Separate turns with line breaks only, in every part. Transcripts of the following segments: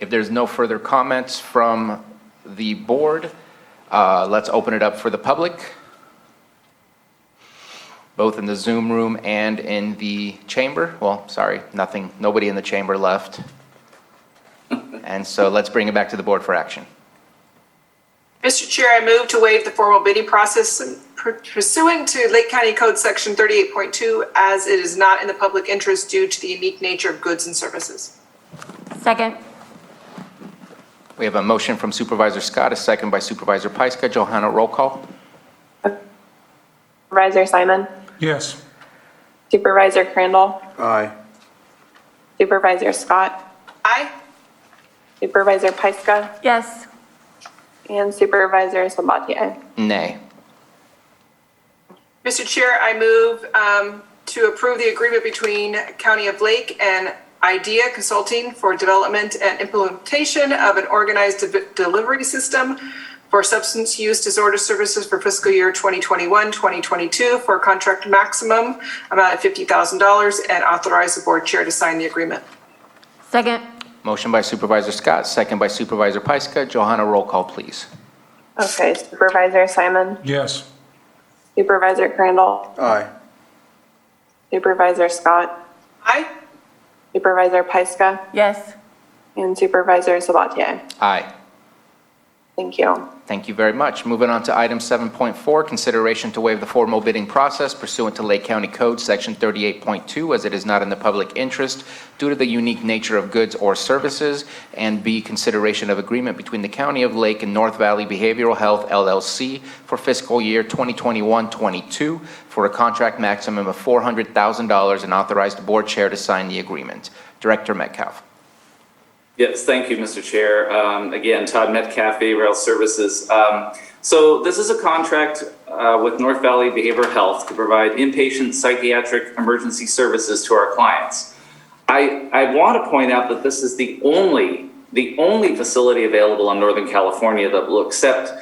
If there's no further comments from the board, uh, let's open it up for the public, both in the Zoom room and in the chamber. Well, sorry, nothing, nobody in the chamber left. And so let's bring it back to the board for action.
Mr. Chair, I move to waive the formal bidding process pursuant to Lake County Code Section 38.2 as it is not in the public interest due to the unique nature of goods and services.
Second.
We have a motion from Supervisor Scott, a second by Supervisor Pyska. Johanna, roll call.
Supervisor Simon,
Yes.
Supervisor Crandall,
Aye.
Supervisor Scott,
Aye.
Supervisor Pyska,
Yes.
and Supervisor Sabatier.
Nay.
Mr. Chair, I move um, to approve the agreement between County of Lake and Idea Consulting for development and implementation of an organized de- delivery system for substance use disorder services for fiscal year 2021, 2022 for a contract maximum amount of $50,000 and authorize the board chair to sign the agreement.
Second.
Motion by Supervisor Scott, second by Supervisor Pyska. Johanna, roll call, please.
Okay, Supervisor Simon,
Yes.
Supervisor Crandall,
Aye.
Supervisor Scott,
Aye.
Supervisor Pyska,
Yes.
and Supervisor Sabatier.
Aye.
Thank you.
Thank you very much. Moving on to item 7.4, consideration to waive the formal bidding process pursuant to Lake County Code, Section 38.2, as it is not in the public interest due to the unique nature of goods or services, and B, consideration of agreement between the County of Lake and North Valley Behavioral Health LLC for fiscal year 2021-22 for a contract maximum of $400,000 and authorize the board chair to sign the agreement. Director Metcalf.
Yes, thank you, Mr. Chair. Um, Again, Todd Metcalf, Bay Rail Services. Um, So this is a contract uh, with North Valley Behavioral Health to provide inpatient psychiatric emergency services to our clients. I, I want to point out that this is the only, the only facility available in Northern California that will accept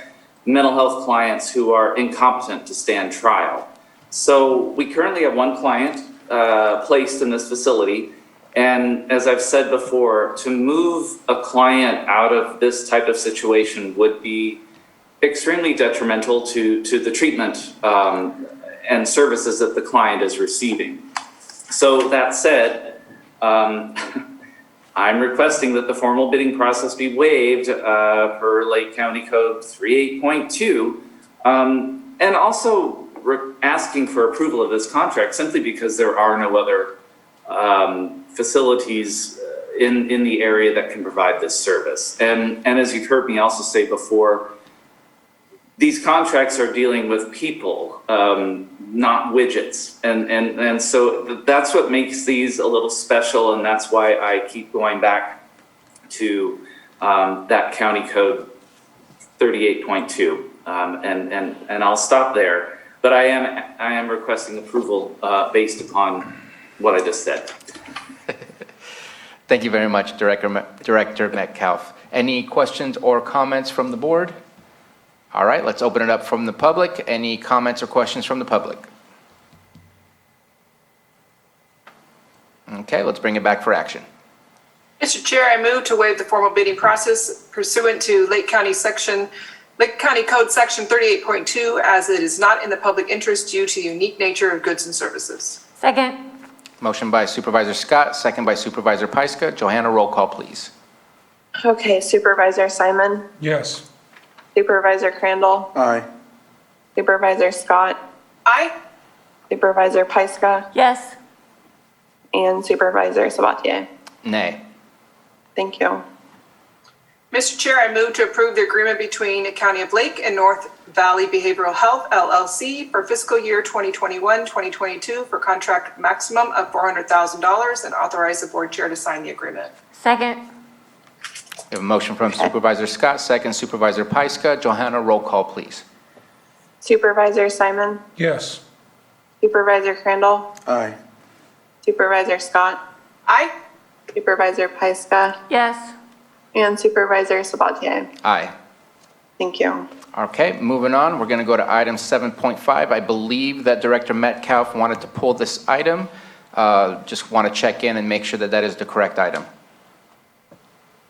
mental health clients who are incompetent to stand trial. So we currently have one client uh, placed in this facility. And as I've said before, to move a client out of this type of situation would be extremely detrimental to, to the treatment um, and services that the client is receiving. So that said, um, I'm requesting that the formal bidding process be waived uh, per Lake County Code 38.2. um, And also re- asking for approval of this contract simply because there are no other um, facilities uh, in, in the area that can provide this service. And, and as you've heard me also say before, these contracts are dealing with people, um, not widgets. And, and, and so th- that's what makes these a little special, and that's why I keep going back to um, that county code 38.2. Um, and, and, and I'll stop there. But I am, I am requesting approval uh, based upon what I just said.
Thank you very much, Director Me- Director Metcalf. Any questions or comments from the board? All right, let's open it up from the public. Any comments or questions from the public? Okay, let's bring it back for action.
Mr. Chair, I move to waive the formal bidding process pursuant to Lake County Section, Lake County Code Section 38.2, as it is not in the public interest due to the unique nature of goods and services.
Second.
Motion by Supervisor Scott, second by Supervisor Pyska. Johanna, roll call, please.
Okay, Supervisor Simon,
Yes.
Supervisor Crandall,
Aye.
Supervisor Scott,
Aye.
Supervisor Pyska,
Yes.
and Supervisor Sabatier.
Nay.
Thank you.
Mr. Chair, I move to approve the agreement between the County of Lake and North Valley Behavioral Health LLC for fiscal year 2021, 2022 for contract maximum of $400,000 and authorize the board chair to sign the agreement.
Second.
We have a motion from Supervisor Scott, second Supervisor Pyska. Johanna, roll call, please.
Supervisor Simon,
Yes.
Supervisor Crandall,
Aye.
Supervisor Scott,
Aye.
Supervisor Pyska,
Yes.
and Supervisor Sabatier.
Aye.
Thank you.
Okay, moving on, we're going to go to item 7.5. I believe that Director Metcalf wanted to pull this item. Uh, Just want to check in and make sure that that is the correct item.